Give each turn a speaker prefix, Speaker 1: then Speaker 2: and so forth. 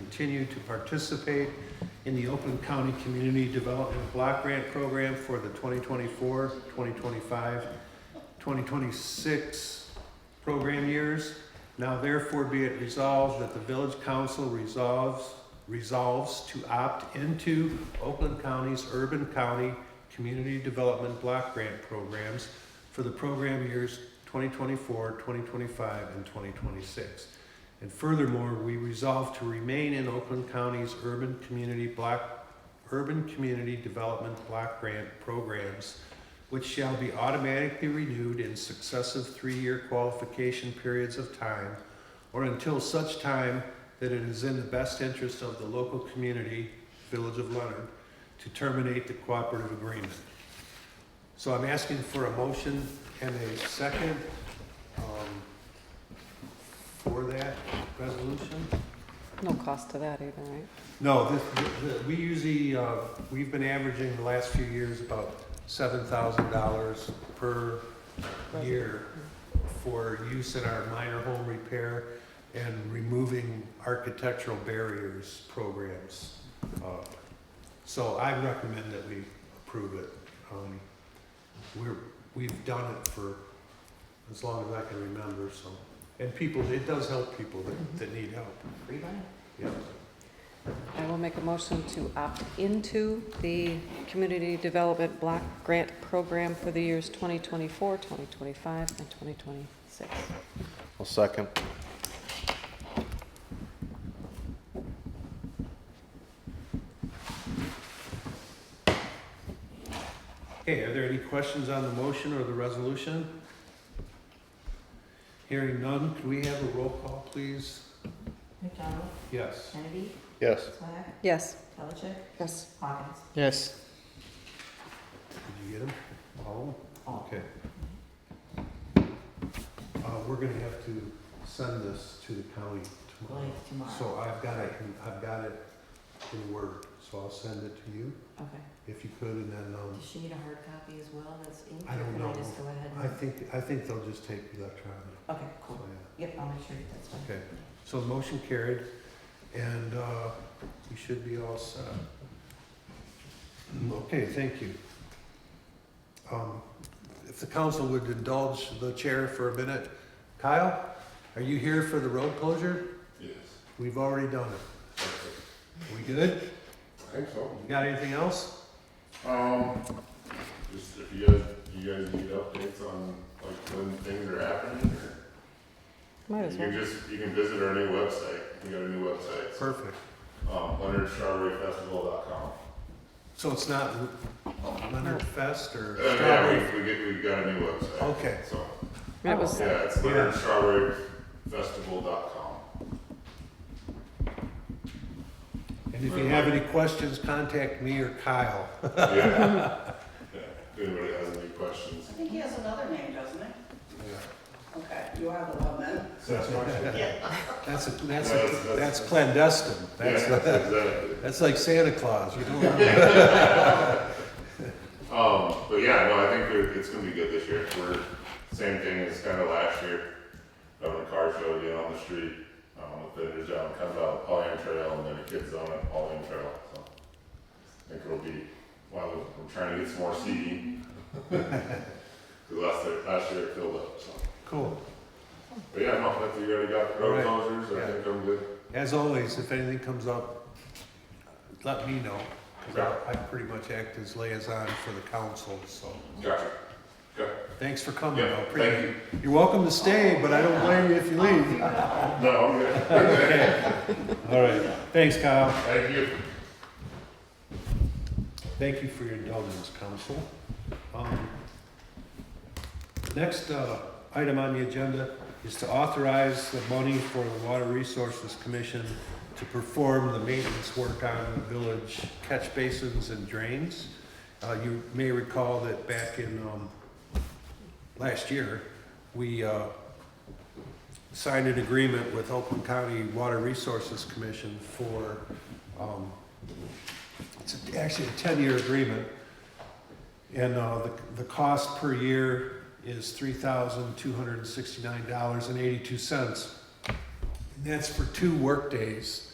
Speaker 1: continue to participate in the Oakland County Community Development Block Grant Program for the 2024, 2025, 2026 program years. Now therefore be it resolved that the village council resolves, resolves to opt into Oakland County's Urban County Community Development Block Grant Programs for the program years 2024, 2025, and 2026. And furthermore, we resolve to remain in Oakland County's urban community block, urban community development block grant programs, which shall be automatically renewed in successive three-year qualification periods of time, or until such time that it is in the best interest of the local community, Village of Leonard, to terminate the cooperative agreement. So I'm asking for a motion and a second um, for that resolution.
Speaker 2: No cost to that either, right?
Speaker 1: No, this, th- we usually, uh, we've been averaging the last few years about seven thousand dollars per year for use in our minor home repair and removing architectural barriers programs. Uh, So I recommend that we approve it. Um, We're, we've done it for as long as I can remember, so. And people, it does help people that, that need help.
Speaker 2: Free money.
Speaker 1: Yeah.
Speaker 2: I will make a motion to opt into the Community Development Block Grant Program for the years 2024, 2025, and 2026.
Speaker 3: I'll second.
Speaker 1: Okay, are there any questions on the motion or the resolution? Hearing none, could we have a roll call, please?
Speaker 4: McDonald,
Speaker 1: Yes.
Speaker 4: Kennedy,
Speaker 3: Yes.
Speaker 4: Swack,
Speaker 2: Yes.
Speaker 4: Pelichek,
Speaker 2: Yes.
Speaker 4: Hawkins.
Speaker 3: Yes.
Speaker 1: Did you get them? All of them? Okay. Uh, we're gonna have to send this to the county
Speaker 4: Well,
Speaker 1: tomorrow.
Speaker 4: it's tomorrow.
Speaker 1: So I've got it, in- I've got it in Word, so I'll send it to you
Speaker 4: Okay.
Speaker 1: if you could, and then, um,
Speaker 4: Does she need a hard copy as well that's inked?
Speaker 1: I
Speaker 4: or
Speaker 1: don't
Speaker 4: Can
Speaker 1: know.
Speaker 4: I just go ahead?
Speaker 1: I
Speaker 4: and-
Speaker 1: think, I think they'll just take electronic,
Speaker 4: Okay,
Speaker 1: so
Speaker 4: cool.
Speaker 1: yeah.
Speaker 4: Yep, I'll make sure that that's fine.
Speaker 1: Okay. So the motion carried, and uh, we should be all set. Okay, thank you. Um, If the council would indulge the chair for a minute. Kyle, are you here for the road closure?
Speaker 5: Yes,
Speaker 1: We've already done it. We good?
Speaker 5: I think so.
Speaker 1: You got anything else?
Speaker 5: Um, just if you guys, you guys need updates on like when things are happening, or
Speaker 2: Might
Speaker 5: you
Speaker 2: as
Speaker 5: can
Speaker 2: well.
Speaker 5: just, you can visit our new website, we got a new website, so,
Speaker 1: Perfect.
Speaker 5: um, leonardstrawberryfestival.com.
Speaker 1: So it's not Leonard Fest or
Speaker 5: Uh, yeah,
Speaker 1: Strawberry?
Speaker 5: we, we get, we got a new website,
Speaker 1: Okay,
Speaker 5: so,
Speaker 2: It was,
Speaker 5: yeah, it's
Speaker 1: Yeah.
Speaker 5: leonardstrawberryfestival.com.
Speaker 1: and if you have any questions, contact me or Kyle.
Speaker 5: Yeah. Yeah, if anybody has any questions.
Speaker 6: I think he has another name, doesn't he? Okay, you are the one then.
Speaker 5: So that's my. Yeah,
Speaker 1: That's, a- that's,
Speaker 5: No, that's-
Speaker 1: a- that's clandestine. That's,
Speaker 5: exactly.
Speaker 1: That's like Santa Claus, you don't
Speaker 5: Um, but yeah, no, I think they're- it's gonna be good this year. We're same thing as kind of last year. Having a car show being on the street, um, with vendors down, comes out Pauline Trail and then the kids on it, Pauline Trail. So I think it'll be, well, we're trying to get some more seating. 'Cause last year, last year it filled up. So,
Speaker 1: Cool.
Speaker 5: but yeah, no, that's you already got road
Speaker 1: Right.
Speaker 5: closures. I
Speaker 1: Yeah.
Speaker 5: think I'm good.
Speaker 1: As always, if anything comes up, let me know, because I pretty much act as liaison for the council, so.
Speaker 5: Gotcha. Okay.
Speaker 1: Thanks for coming,
Speaker 5: Yeah,
Speaker 1: I appreciate
Speaker 5: thank
Speaker 1: it. You're welcome to stay, but I don't blame you if you leave.
Speaker 5: No, I'm good.
Speaker 1: All right, thanks Kyle.
Speaker 5: Thank you.
Speaker 1: Thank you for your indulgence, council. Um, Next uh, item on the agenda is to authorize the money for the Water Resources Commission to perform the maintenance work on the village catch basins and drains. Uh, You may recall that back in um, last year, we uh, signed an agreement with Oakland County Water Resources Commission for, um, it's actually a 10-year agreement and uh, the, the cost per year is three thousand two hundred and sixty-nine dollars and eighty-two cents. And that's for two workdays